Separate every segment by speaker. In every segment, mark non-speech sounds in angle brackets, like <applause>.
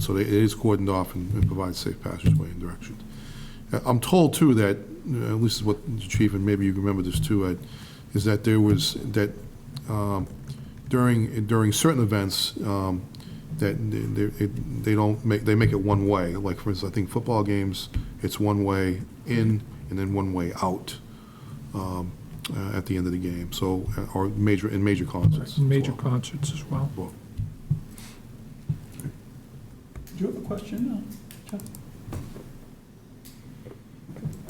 Speaker 1: So they- it is cordoned off and and provides safe passageway and direction. Uh, I'm told, too, that, uh, at least what the chief, and maybe you remember this, too, Ed, is that there was, that um, during, during certain events, um, that they- they- it- they don't make, they make it one-way. Like, for instance, I think football games, it's one-way in and then one-way out um, uh, at the end of the game, so, uh, or major, in major concerts. as
Speaker 2: Major
Speaker 1: well.
Speaker 2: concerts as well.
Speaker 1: Well,
Speaker 3: Do you have a question? uh, Jeff?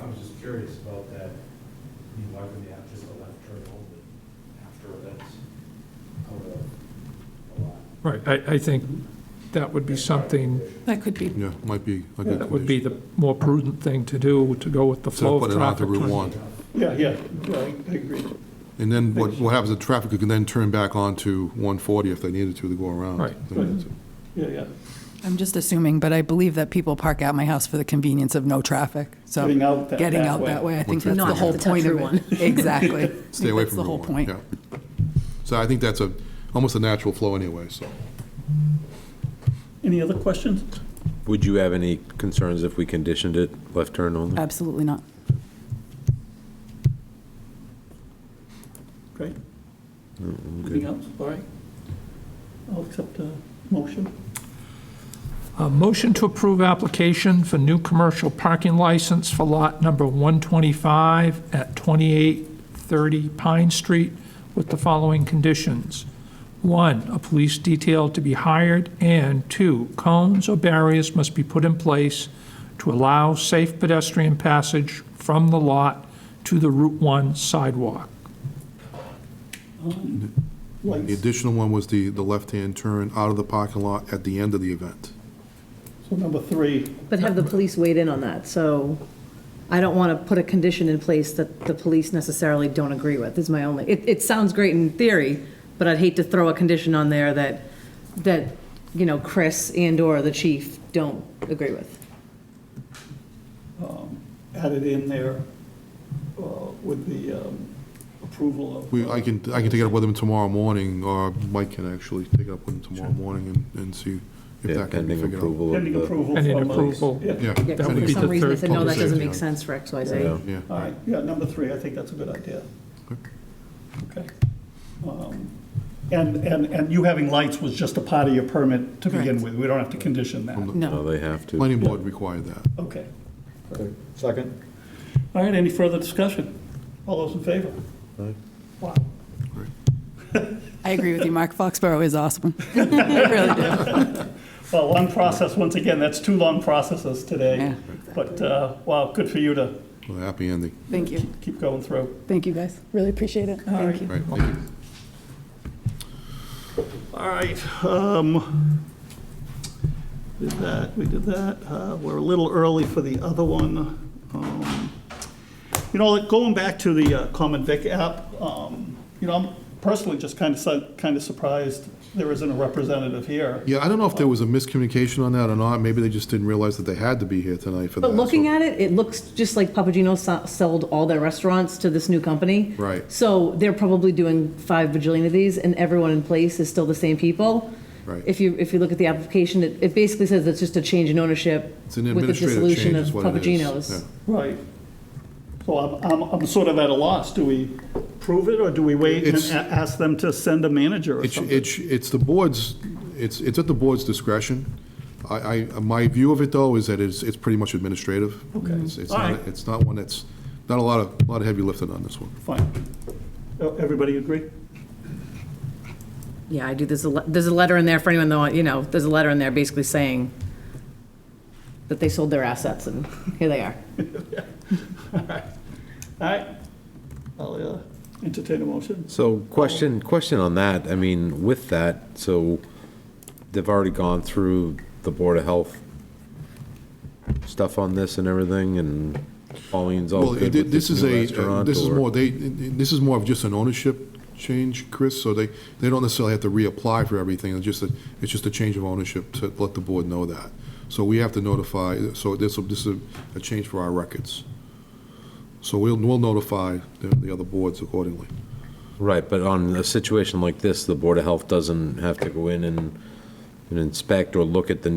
Speaker 4: I was just curious about that, I mean, why would they have just a left turn only after events? Out of a lot.
Speaker 2: Right, I, I think that would be something,
Speaker 5: That could be,
Speaker 1: Yeah, might be a good
Speaker 2: that would
Speaker 1: condition.
Speaker 2: be the more prudent thing to do, to go with the
Speaker 1: Instead of
Speaker 2: flow of
Speaker 1: putting it out to
Speaker 2: traffic.
Speaker 1: Route 1.
Speaker 3: Yeah, yeah, yeah, I I agree.
Speaker 1: And then what, what happens, the traffic could then turn back onto 140 if they needed to, to go around.
Speaker 2: Right.
Speaker 1: They needed to.
Speaker 3: Yeah, yeah.
Speaker 5: I'm just assuming, but I believe that people park out my house for the convenience of no traffic, so.
Speaker 3: Getting out that-
Speaker 5: getting
Speaker 3: that
Speaker 5: out
Speaker 3: way.
Speaker 5: that way, I think that's
Speaker 1: Not
Speaker 5: the
Speaker 1: have
Speaker 5: whole
Speaker 6: to touch
Speaker 5: point of
Speaker 6: Route
Speaker 5: it. Exactly. I think
Speaker 1: <laughs> Stay away
Speaker 5: that's
Speaker 1: from
Speaker 5: the
Speaker 1: Route
Speaker 5: whole
Speaker 1: 1,
Speaker 5: point.
Speaker 1: yeah. So I think that's a, almost a natural flow anyway, so.
Speaker 3: Any other questions?
Speaker 7: Would you have any concerns if we conditioned it left turn only?
Speaker 5: Absolutely not.
Speaker 3: Great. Anything else? All right. I'll accept a motion.
Speaker 2: A motion to approve application for new commercial parking license for lot number 125 at 2830 Pine Street with the following conditions. One, a police detail to be hired, and two, cones or barriers must be put in place to allow safe pedestrian passage from the lot to the Route 1 sidewalk.
Speaker 1: The
Speaker 3: Lights,
Speaker 1: additional one was the, the left-hand turn out of the parking lot at the end of the event.
Speaker 3: so number three,
Speaker 6: But have the police weighed in on that, so I don't want to put a condition in place that the police necessarily don't agree with, is my only, it, it sounds great in theory, but I'd hate to throw a condition on there that, that, you know, Chris and/or the chief don't agree with.
Speaker 3: added in there uh, with the um, approval of.
Speaker 1: We, I can, I can take it up with them tomorrow morning, or Mike can actually take it up with them tomorrow morning and, and see if
Speaker 7: Yeah,
Speaker 1: that can be
Speaker 7: pending
Speaker 1: figured out.
Speaker 7: approval of
Speaker 3: Pending
Speaker 7: the,
Speaker 3: approval.
Speaker 2: Pending
Speaker 3: from us.
Speaker 2: approval.
Speaker 3: Yeah.
Speaker 1: Yeah.
Speaker 6: Yeah,
Speaker 2: That would
Speaker 6: for
Speaker 1: pending-
Speaker 2: be
Speaker 6: some
Speaker 2: the
Speaker 6: reason, they
Speaker 2: third
Speaker 6: said, no, that doesn't
Speaker 1: conversation.
Speaker 6: make sense for X, Y, Z.
Speaker 7: Yeah.
Speaker 1: Yeah.
Speaker 3: All right, yeah, number three, I think that's a good idea. Okay. Um, And, and, and you having lights was just a part of your permit to begin
Speaker 5: Correct.
Speaker 3: with, we don't have to condition that.
Speaker 7: no,
Speaker 5: No.
Speaker 7: Oh, they have to.
Speaker 1: Planning board required that.
Speaker 3: Okay.
Speaker 4: Second?
Speaker 3: All right, any further discussion? All those in favor? Wow.
Speaker 5: I agree with you. Mark Foxborough is awesome. <laughs> I really do.
Speaker 3: Well, long process, once again, that's two long processes today.
Speaker 5: Yeah.
Speaker 3: But, uh, wow, good for you to
Speaker 1: Well, happy ending,
Speaker 5: Thank you.
Speaker 3: keep going through.
Speaker 5: Thank you, guys. Really appreciate it. Thank you.
Speaker 1: right, thank you.
Speaker 3: All right. um, Did that, we did that. Uh, We're a little early for the other one. Um, You know, like, going back to the uh, Common Vic app, um, you know, I'm personally just kind of, kind of surprised there isn't a representative here.
Speaker 1: Yeah, I don't know if there was a miscommunication on that or not, maybe they just didn't realize that they had to be here tonight for that.
Speaker 6: But looking
Speaker 1: so-
Speaker 6: at it, it looks just like Papagino so- sold all their restaurants to this new company.
Speaker 1: Right.
Speaker 6: So they're probably doing five bajillion of these, and everyone in place is still the same people.
Speaker 1: Right.
Speaker 6: If you, if you look at the application, it, it basically says it's just a change in ownership
Speaker 1: It's an
Speaker 6: with the
Speaker 1: administrative
Speaker 6: dissolution
Speaker 1: change
Speaker 6: of
Speaker 1: is what it is.
Speaker 6: Papagino's.
Speaker 1: Yeah.
Speaker 3: Right. So I'm, I'm, I'm sort of at a loss. Do we prove it, or do we wait and
Speaker 1: It's-
Speaker 3: a- ask them to send a manager or
Speaker 1: It's,
Speaker 3: something?
Speaker 1: it's, it's the board's, it's, it's at the board's discretion. I, I, my view of it though is that it's, it's pretty much administrative. Okay. It's it's
Speaker 3: All
Speaker 1: not,
Speaker 3: right.
Speaker 1: it's not one that's, not a lot of, lot of heavy lifting on this one.
Speaker 3: Fine. Oh, Everybody agree?
Speaker 6: Yeah, I do, there's a, le- there's a letter in there for anyone that, you know, there's a letter in there basically saying that they sold their assets, and here they are.
Speaker 3: All right. I'll uh, entertain a motion.
Speaker 7: So question, question on that, I mean, with that, so they've already gone through the Board of Health stuff on this and everything, and Pauline's all
Speaker 1: Well,
Speaker 7: good
Speaker 1: thi-
Speaker 7: with
Speaker 1: this
Speaker 7: this
Speaker 1: is
Speaker 7: new
Speaker 1: a,
Speaker 7: restaurant?
Speaker 1: this is
Speaker 7: or-
Speaker 1: more, they, this is more of just an ownership change, Chris, so they, they don't necessarily have to reapply for everything, it's just a, it's just a change of ownership to let the board know that. So we have to notify, so this, will- this is a change for our records. So we'll, we'll notify the, the other boards accordingly.
Speaker 7: Right, but on a situation like this, the Board of Health doesn't have to go in and and inspect or look at the new